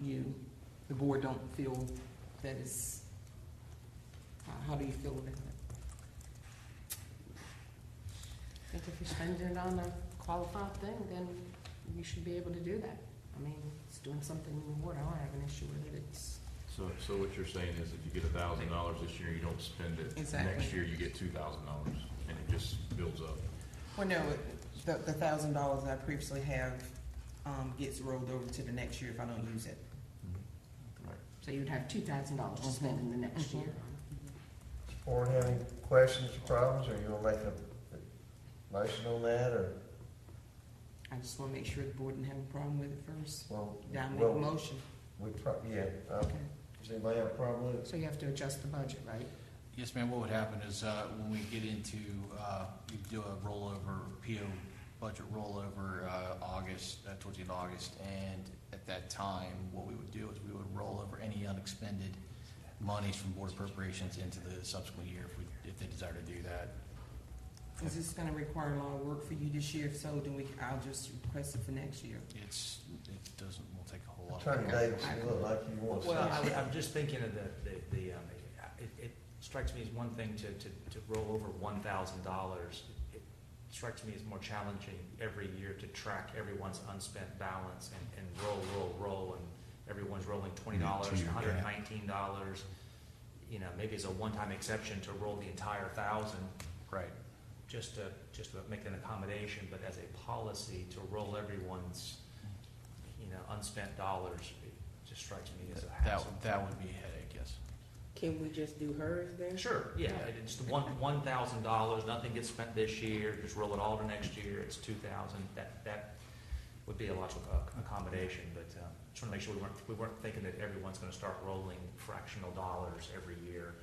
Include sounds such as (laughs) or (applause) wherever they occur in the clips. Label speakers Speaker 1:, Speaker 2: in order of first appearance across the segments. Speaker 1: you, the board don't feel that is, how, how do you feel about that?
Speaker 2: I think if you're spending it on a qualified thing, then you should be able to do that. I mean, it's doing something in the water, I don't have an issue with it, it's,
Speaker 3: So, so what you're saying is if you get a thousand dollars this year, you don't spend it.
Speaker 1: Exactly.
Speaker 3: Next year, you get two thousand dollars, and it just builds up.
Speaker 1: Well, no, it- the, the thousand dollars I previously have, um, gets rolled over to the next year if I don't use it.
Speaker 2: so you'd have two thousand dollars to spend in the next
Speaker 4: Uh-huh.
Speaker 2: year.
Speaker 5: Board have any questions or problems, or you gonna make a motion on that, or,
Speaker 1: I just wanna make sure the board didn't have a problem with it first,
Speaker 5: well,
Speaker 1: then I make a
Speaker 5: well,
Speaker 1: motion.
Speaker 5: we pro, yeah, um,
Speaker 2: Okay.
Speaker 5: does anybody have a problem with it?
Speaker 2: So you have to adjust the budget, right?
Speaker 6: Yes, ma'am, what would happen is, uh, when we get into, uh, you do a rollover, PO budget rollover, uh, August, uh, towards the end of August, and at that time, what we would do is we would roll over any unexpended monies from board appropriations into the subsequent year if we, if they desire to do that.
Speaker 1: Is this gonna require a lot of work for you this year? If so, then we, I'll just request it for next year.
Speaker 6: It's, it doesn't, won't take a whole lot.
Speaker 5: Attorney Davis, you look like you want to.
Speaker 7: Well, I was- I'm just thinking of the, the- the, um, it, it strikes me as one thing to, to, to roll over one thousand dollars. It Strikes me as more challenging every year to track everyone's unspent balance and, and roll, roll, roll, and everyone's rolling twenty dollars,
Speaker 6: Yeah.
Speaker 7: hundred and nineteen dollars. You know, maybe it's a one-time exception to roll the entire thousand,
Speaker 6: Right,
Speaker 7: just to, just to make an accommodation, but as a policy to roll everyone's, you know, unspent dollars, it just strikes me as a
Speaker 6: that,
Speaker 7: hassle.
Speaker 6: that would be a headache, yes.
Speaker 2: Can we just do hers then?
Speaker 7: Sure, yeah,
Speaker 6: Yeah.
Speaker 7: it's the one, one thousand dollars, nothing gets spent this year, just roll it all to next year, it's two thousand, that, that would be a logical ac- accommodation, but, um, just wanna make sure we weren't, we weren't thinking that everyone's gonna start rolling fractional dollars every year.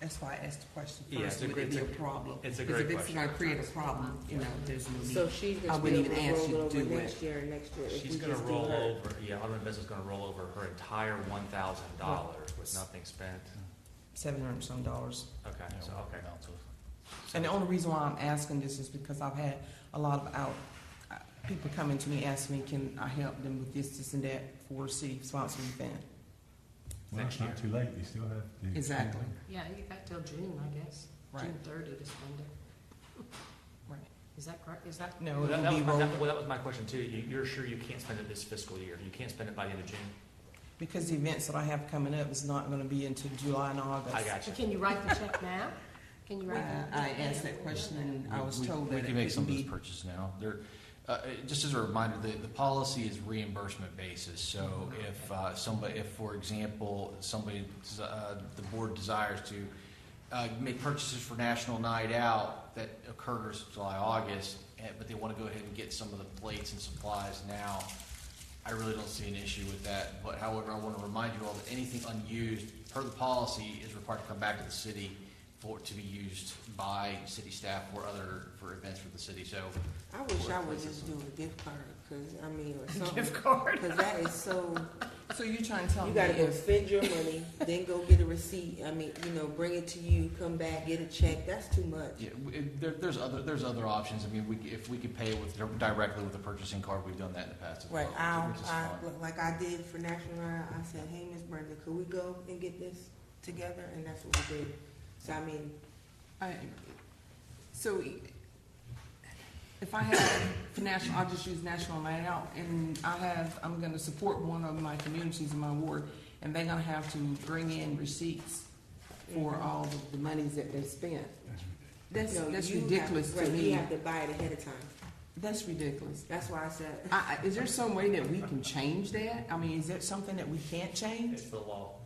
Speaker 1: That's why I asked the question
Speaker 7: Yeah,
Speaker 1: first,
Speaker 7: it's a
Speaker 1: would
Speaker 7: great-
Speaker 1: it be a
Speaker 7: it's a-
Speaker 1: problem?
Speaker 7: it's a
Speaker 1: Because
Speaker 7: great
Speaker 1: if it's
Speaker 7: question.
Speaker 1: gonna create a problem, you know, there's no need.
Speaker 4: So she's
Speaker 1: Mm-hmm. I
Speaker 4: just
Speaker 1: wouldn't
Speaker 4: still
Speaker 1: even ask you
Speaker 4: roll
Speaker 1: to
Speaker 4: over
Speaker 1: do
Speaker 4: next year and next year if we
Speaker 7: She's
Speaker 4: just do
Speaker 7: gonna roll
Speaker 4: her.
Speaker 7: over, yeah, Alderman Benson's gonna roll over her entire one thousand dollars with nothing spent,
Speaker 1: Seven hundred some dollars.
Speaker 7: okay,
Speaker 6: You know,
Speaker 7: so, okay.
Speaker 6: amounts of-
Speaker 1: And the only reason why I'm asking this is because I've had a lot of out, uh, people coming to me asking me, can I help them with this, this and that for city sponsored event?
Speaker 8: Well,
Speaker 7: Next
Speaker 8: it's not too late, you still have the.
Speaker 1: Exactly.
Speaker 2: Yeah, you got till June, I guess,
Speaker 1: Right,
Speaker 2: June thirty to spend it.
Speaker 1: Right.
Speaker 2: Is that correct, is that?
Speaker 1: no,
Speaker 7: Well,
Speaker 1: it
Speaker 7: that, that
Speaker 1: will be
Speaker 7: was my,
Speaker 1: rolled,
Speaker 7: that- well, that was my question too, you, you're sure you can't spend it this fiscal year, you can't spend it by the end of June?
Speaker 1: because the events that I have coming up is not gonna be until July and August.
Speaker 7: I got
Speaker 2: So
Speaker 7: you.
Speaker 2: can you write the check now? Can you
Speaker 1: Uh,
Speaker 2: write? the-
Speaker 1: I asked that question and I was
Speaker 6: We-
Speaker 1: told
Speaker 6: We
Speaker 1: that it
Speaker 6: can make some
Speaker 1: would
Speaker 6: of those
Speaker 1: be,
Speaker 6: purchases now. There, uh, uh, just as a reminder, the, the policy is reimbursement basis. So
Speaker 1: Mm-hmm.
Speaker 6: if, uh, somebody, if, for example, somebody, des- uh, the board desires to, uh, make purchases for National Night Out that occurs July, August, and, but they wanna go ahead and get some of the plates and supplies now, I really don't see an issue with that. But however, I wanna remind you all that anything unused per the policy is required to come back to the city for, to be used by city staff or other, for events for the city, so.
Speaker 4: I wish I would just do a gift card, cause I mean, or something. Gift card. Cause that is so,
Speaker 1: so you're trying to tell
Speaker 4: (laughs) you
Speaker 1: me
Speaker 4: gotta go
Speaker 1: if,
Speaker 4: spend your money, then go get a receipt, I mean, you know, bring it to you, come back, get a check, that's too much.
Speaker 6: Yeah, w- it- there, there's other, there's other options, I mean, we, if we could pay with, directly with a purchasing card, we've done that in the past as well.
Speaker 4: Right,
Speaker 6: which-
Speaker 4: I,
Speaker 6: which is
Speaker 4: I,
Speaker 6: fine.
Speaker 4: like I did for National Night, I said, hey, Miss Brenda, could we go and get this together, and that's what we did. So I mean,
Speaker 1: I, so if I have, for national, I'll just use National Night Out and I have, I'm gonna support one of my communities in my ward and they're gonna have to bring in receipts for all of Mm-hmm. the monies that they spent.
Speaker 8: That's ridiculous.
Speaker 1: That's,
Speaker 4: no,
Speaker 1: that's
Speaker 4: you have-
Speaker 1: ridiculous to
Speaker 4: right, You
Speaker 1: me.
Speaker 4: have to buy it ahead of time,
Speaker 1: That's ridiculous.
Speaker 4: that's why I said, (laughs)
Speaker 1: I, I, is there some way that we can change that? I mean, is there something that we can't change?
Speaker 7: It's the law.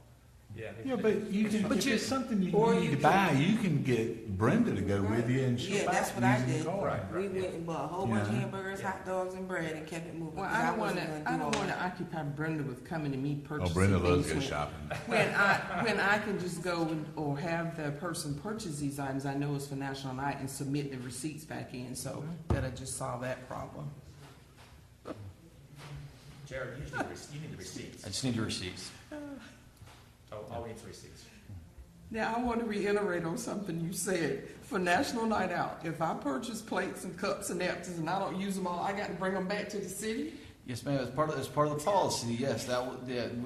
Speaker 7: Yeah.
Speaker 8: Yeah, but you can,
Speaker 1: But
Speaker 8: if
Speaker 1: you-
Speaker 8: it's something you
Speaker 4: or
Speaker 8: need
Speaker 4: you
Speaker 8: to buy, you can get Brenda to go with you and she'll
Speaker 4: Yeah,
Speaker 8: buy
Speaker 4: that's
Speaker 8: it
Speaker 4: what I
Speaker 8: using the
Speaker 4: did.
Speaker 8: card.
Speaker 7: Right.
Speaker 4: we went and bought a whole bunch of
Speaker 8: Yeah.
Speaker 4: hamburgers, hot dogs, and bread, and kept it moving.
Speaker 1: Well,
Speaker 4: 'cause
Speaker 1: I don't
Speaker 4: wasn't
Speaker 1: wanna,
Speaker 4: gonna
Speaker 1: I
Speaker 4: do all
Speaker 1: don't wanna
Speaker 4: that.
Speaker 1: occupy Brenda with coming to me
Speaker 8: Oh,
Speaker 1: purchasing
Speaker 8: Brenda loves to go
Speaker 1: things when-
Speaker 8: shopping.
Speaker 1: When I, when I can just go and, or have the person purchase these items, I know it's for National Night and submit the receipts back in, so that I just solve that problem.
Speaker 7: Jared, you need the receipts, you need the receipts.
Speaker 6: I just need your receipts.
Speaker 7: Oh, all we need is receipts.
Speaker 1: Now, I want to reiterate on something you said. For National Night Out, if I purchase plates and cups and napkins and I don't use them all, I got to bring them back to the city?
Speaker 6: Yes, ma'am, as part of, as part of the policy, yes, that, would- yeah,